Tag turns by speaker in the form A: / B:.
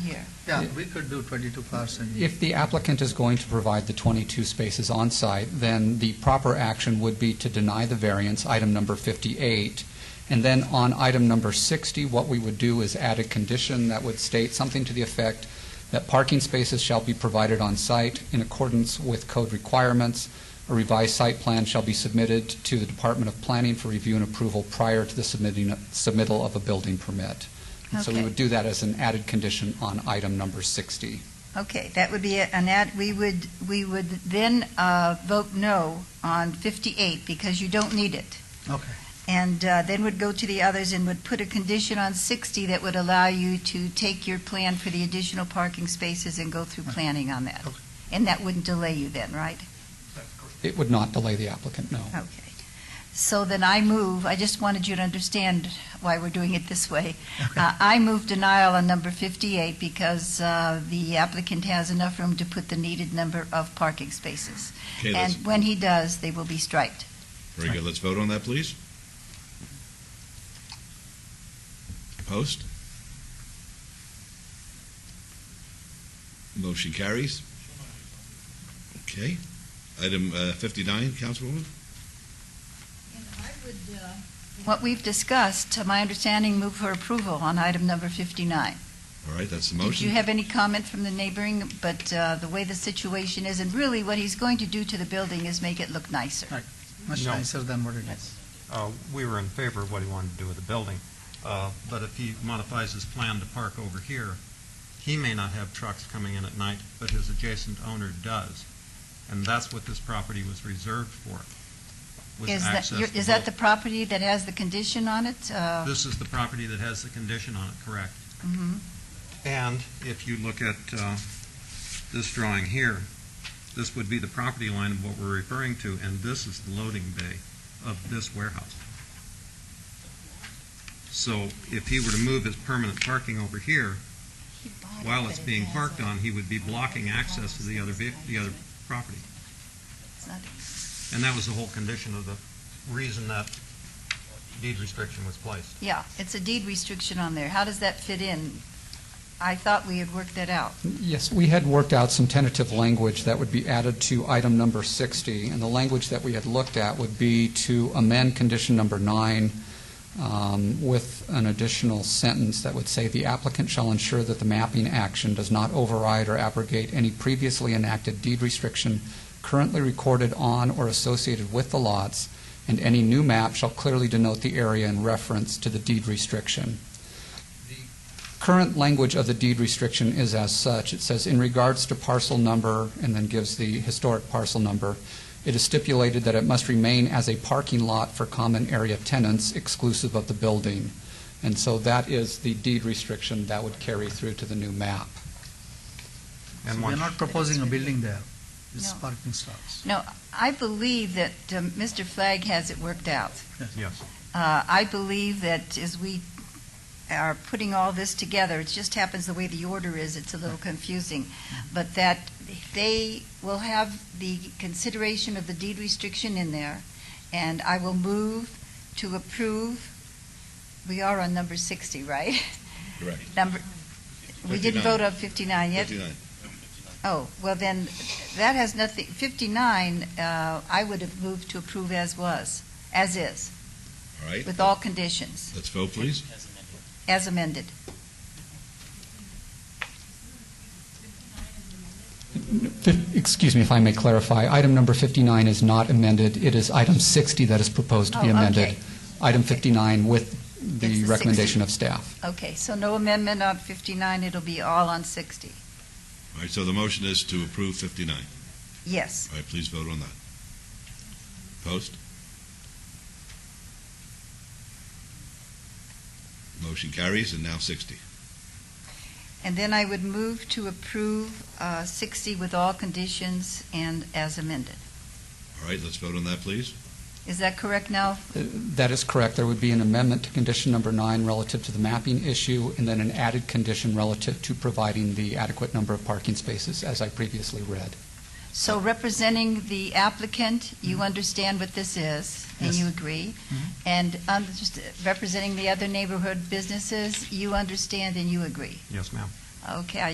A: here. Yeah, we could do 22 cars and...
B: If the applicant is going to provide the 22 spaces on-site, then the proper action would be to deny the variance, item number 58. And then on item number 60, what we would do is add a condition that would state something to the effect that parking spaces shall be provided on-site in accordance with code requirements. A revised site plan shall be submitted to the Department of Planning for review and approval prior to the submitting, submittal of a building permit. And So we
C: Okay.
B: would do that as an added condition on item number 60.
C: Okay, that would be it. an ad, we would, we would then uh, vote no on 58 because you don't need it.
A: Okay.
C: And uh, then would go to the others and would put a condition on 60 that would allow you to take your plan for the additional parking spaces and go through planning on that.
A: Okay.
C: And that wouldn't delay you then, right?
B: It would not delay the applicant, no.
C: Okay. So then I move, I just wanted you to understand why we're doing it this way. Uh, I move denial on number 58 because uh, the applicant has enough room to put the needed number of parking spaces.
D: Okay,
C: And
D: let's,
C: when he does, they will be striped.
D: very good. Let's vote on that, please. Post? Motion carries. Okay. Item uh, 59, Councilwoman?
C: What we've discussed, to my understanding, move for approval on item number 59.
D: All right, that's the
C: Did you
D: motion.
C: have any comment from the neighboring, but uh, the way the situation is, and really what he's going to do to the building is make it look nicer.
A: Much
E: No.
A: nicer than what it is.
E: Uh, We were in favor of what he wanted to do with the building, Uh, but if he modifies his plan to park over here, he may not have trucks coming in at night, but his adjacent owner does. And that's what this property was reserved for, was
C: Is
E: access
C: that,
E: to
C: you're- is that the property that has the condition on it? Uh,
E: both. This is the property that has the condition on it, correct?
C: mhm.
E: And if you look at uh, this drawing here, this would be the property line of what we're referring to, and this is the loading bay of this warehouse. So if he were to move his permanent parking over here, while it's being parked on, he would be blocking access to the other, ve- the other property.
C: It's not-
E: And that was the whole condition of the reason that deed restriction was placed.
C: Yeah, it's a deed restriction on there. How does that fit in? I thought we had worked that out.
B: Yes, we had worked out some tentative language that would be added to item number 60, and the language that we had looked at would be to amend condition number nine um, with an additional sentence that would say, "The applicant shall ensure that the mapping action does not override or abrogate any previously enacted deed restriction currently recorded on or associated with the lots, and any new map shall clearly denote the area in reference to the deed restriction." current language of the deed restriction is as such. It says, in regards to parcel number, and then gives the historic parcel number, it is stipulated that it must remain as a parking lot for common area tenants exclusive of the building. And so that is the deed restriction that would carry through to the new map.
A: So
E: And
A: We're
E: once-
A: not proposing a building there. It's
C: No.
A: parking stalls.
C: I believe that um, Mr. Flagg has it worked out.
E: Yes.
C: Uh, I believe that as we are putting all this together, it just happens the way the order is, it's a little confusing, but that they will have the consideration of the deed restriction in there, and I will move to approve, we are on number 60, right?
D: Correct.
C: Number, we didn't
D: 59.
C: vote on 59 yet?
D: 59.
C: Oh, well then, that has nothing, 59, uh, I would have moved to approve as was, as is,
D: All right,
C: with all conditions.
D: let's vote, please.
C: As amended.
B: Fif- Excuse me if I may clarify, item number 59 is not amended, it is item 60 that is proposed to be
C: Oh, okay.
B: amended. Item
C: Okay.
B: 59 with
C: It's the
B: the
C: 60.
B: recommendation of staff.
C: Okay, so no amendment on 59, it'll be all on 60.
D: All right, so the motion is to approve 59.
C: Yes.
D: All right, please vote on that. Post? Motion carries, and now 60.
C: And then I would move to approve uh, 60 with all conditions and as amended.
D: All right, let's vote on that, please.
C: Is that correct now?
B: That is correct. There would be an amendment to condition number nine relative to the mapping issue, and then an added condition relative to providing the adequate number of parking spaces, as I previously read.
C: So
B: Uh,
C: representing the applicant,
B: mm-hmm.
C: you understand what this is, and
A: Yes.
C: you agree? And um, just representing the other neighborhood businesses, you understand and you agree?
E: Yes, ma'am.
C: Okay, I